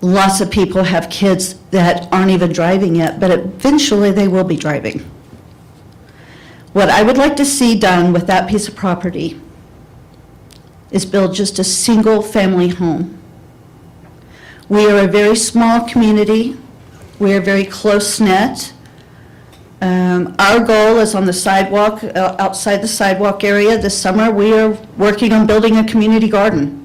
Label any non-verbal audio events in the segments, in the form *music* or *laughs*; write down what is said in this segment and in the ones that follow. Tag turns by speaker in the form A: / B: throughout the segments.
A: lots of people have kids that aren't even driving yet, but eventually they will be driving. What I would like to see done with that piece of property is build just a single-family home. We are a very small community. We are very close-knit. Um, Our goal is on the sidewalk, uh, outside the sidewalk area this summer. We are working on building a community garden.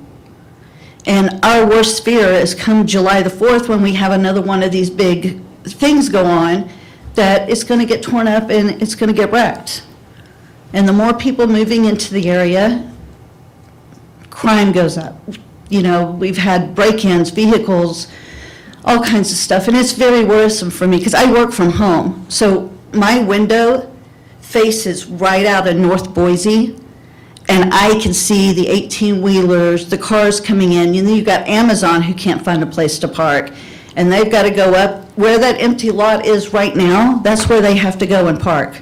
A: And our worst fear is come July the 4th, when we have another one of these big things go on, that it's going to get torn up and it's going to get wrecked. And the more people moving into the area, crime goes up. You know, we've had break-ins, vehicles, all kinds of stuff, and it's very worrisome for me, because I work from home. So my window faces right out of North Boise, and I can see the 18-wheelers, the cars coming in, and then you've got Amazon who can't find a place to park, and they've got to go up, where that empty lot is right now, that's where they have to go and park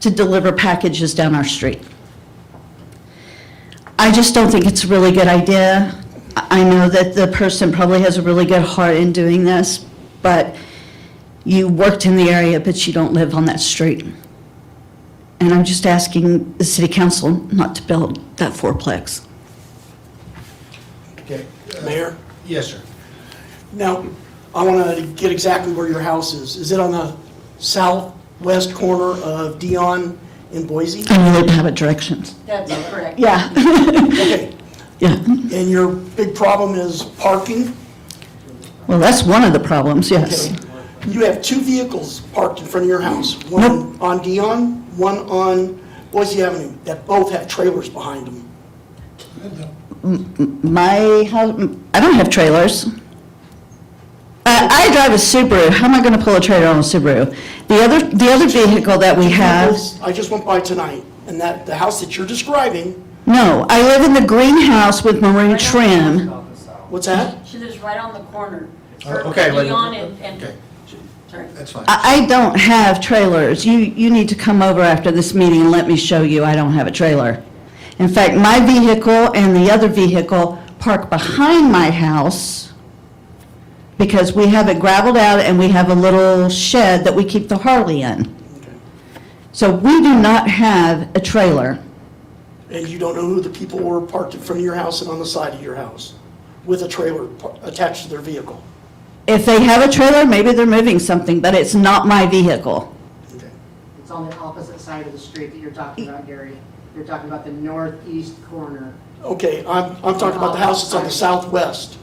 A: to deliver packages down our street. I just don't think it's a really good idea. I I know that the person probably has a really good heart in doing this, but you worked in the area, but you don't live on that street. And I'm just asking the city council not to build that fourplex.
B: Okay. uh,
C: Mayor,
B: Yes, sir.
C: now, I want to get exactly where your house is. Is it on the southwest corner of Dion in
A: *laughs*
C: Boise?
A: I really don't have a direction.
D: That's correct.
A: Yeah,
C: Okay,
A: yeah.
C: and your big problem is parking?
A: Well, that's one of the problems, yes.
C: You have two vehicles parked in front of your house, one on Dion, one on Boise Avenue, that both have trailers behind them.
A: My, hou- I don't have trailers. I I drive a Subaru. How am I going to pull a trailer on a Subaru? The other, the other vehicle that we have.
C: Vehicles, I just went by tonight, and that, the house that you're describing,
A: No, I live in the greenhouse with maroon trim.
C: what's that?
D: She lives right on the corner.
B: Oh, okay, wait,
D: Leon and, and,
B: okay.
D: sorry.
B: That's fine.
A: I, I don't have trailers. You, you need to come over after this meeting and let me show you I don't have a trailer. In fact, my vehicle and the other vehicle park behind my house because we have it gravelled out and we have a little shed that we keep the Harley in. So we do not have a trailer.
C: And you don't know who the people were parked in front of your house and on the side of your house with a trailer par- attached to their vehicle?
A: If they have a trailer, maybe they're moving something, but it's not my vehicle.
C: Okay.
E: It's on the opposite side of the street that you're talking about, Gary. You're talking about the northeast corner.
C: Okay, I'm, I'm talking about the house that's on the southwest.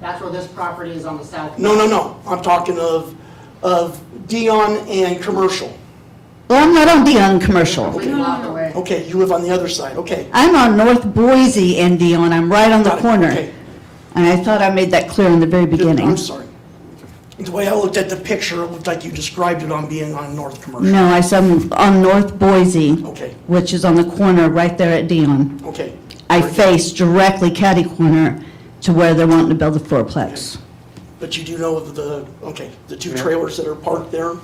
E: That's where this property is on the south.
C: No, no, no, I'm talking of, of Dion and Commercial.
A: Well, I'm not on Dion Commercial.
E: Completely blocked away.
C: Okay, you live on the other side, okay.
A: I'm on North Boise and Dion, I'm right on the
C: Got it,
A: corner.
C: okay.
A: And I thought I made that clear in the very beginning.
C: I'm sorry. The way I looked at the picture, it looked like you described it on being on North Commercial.
A: No, I said I'm on North Boise,
C: Okay.
A: which is on the corner right there at Dion.
C: Okay.
A: I
C: Very good.
A: face directly catty corner to where they're wanting to build the fourplex.
C: But you do know of the, okay, the two trailers that are parked there?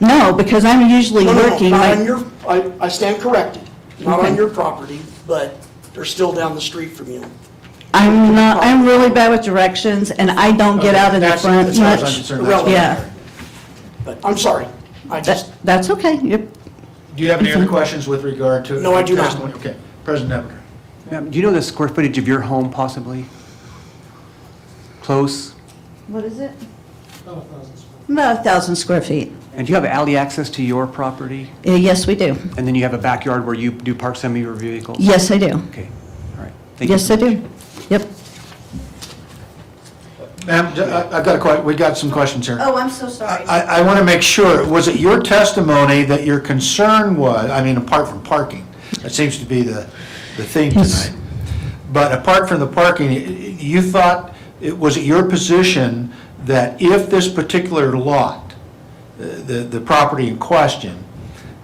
A: No, because I'm usually
C: No, no, no,
A: working,
C: Not on
A: like,
C: your, I, I stand corrected, not
A: Okay.
C: on your property, but they're still down the street from you.
A: I'm
C: Oh.
A: not, I'm really bad with directions, and I don't get out in the
B: That's-
A: front
B: that's what I was
A: much.
B: concerned, that's what I was
A: Yeah.
B: concerned.
C: But I'm sorry, I just,
A: That- That's okay, You're-
B: Do you have any other questions with regard to?
C: No, I do not.
B: testimony? Okay. President Nebeker.
F: Ma'am, do you know the square footage of your home possibly? Close?
A: What is it? About a thousand square feet.
F: And do you have alley access to your property?
A: Uh, Yes, we do.
F: And then you have a backyard where you do park some of your vehicles?
A: Yes, I do.
F: Okay, all right. Thank you
A: Yes,
F: so
A: I
F: much.
A: do. Yep.
B: Ma'am, j- I- I've got a que, we got some questions here.
A: Oh, I'm so
B: I,
A: sorry.
B: I- I want to make sure, was it your testimony that your concern was, I mean, apart from parking, that seems to be the, the theme
A: Yes.
B: tonight. But apart from the parking, y- y- you thought, it was it your position that if this particular lot, uh, the, the property in question,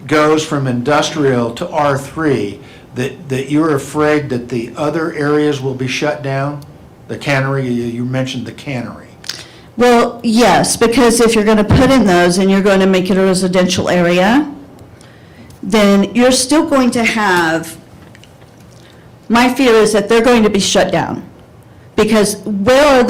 B: goes from industrial to R3, that, that you're afraid that the other areas will be shut down? The cannery, you you mentioned the cannery.
A: Well, yes, because if you're going to put in those and you're going to make it a residential area, then you're still going to have, my fear is that they're going to be shut down. Because where are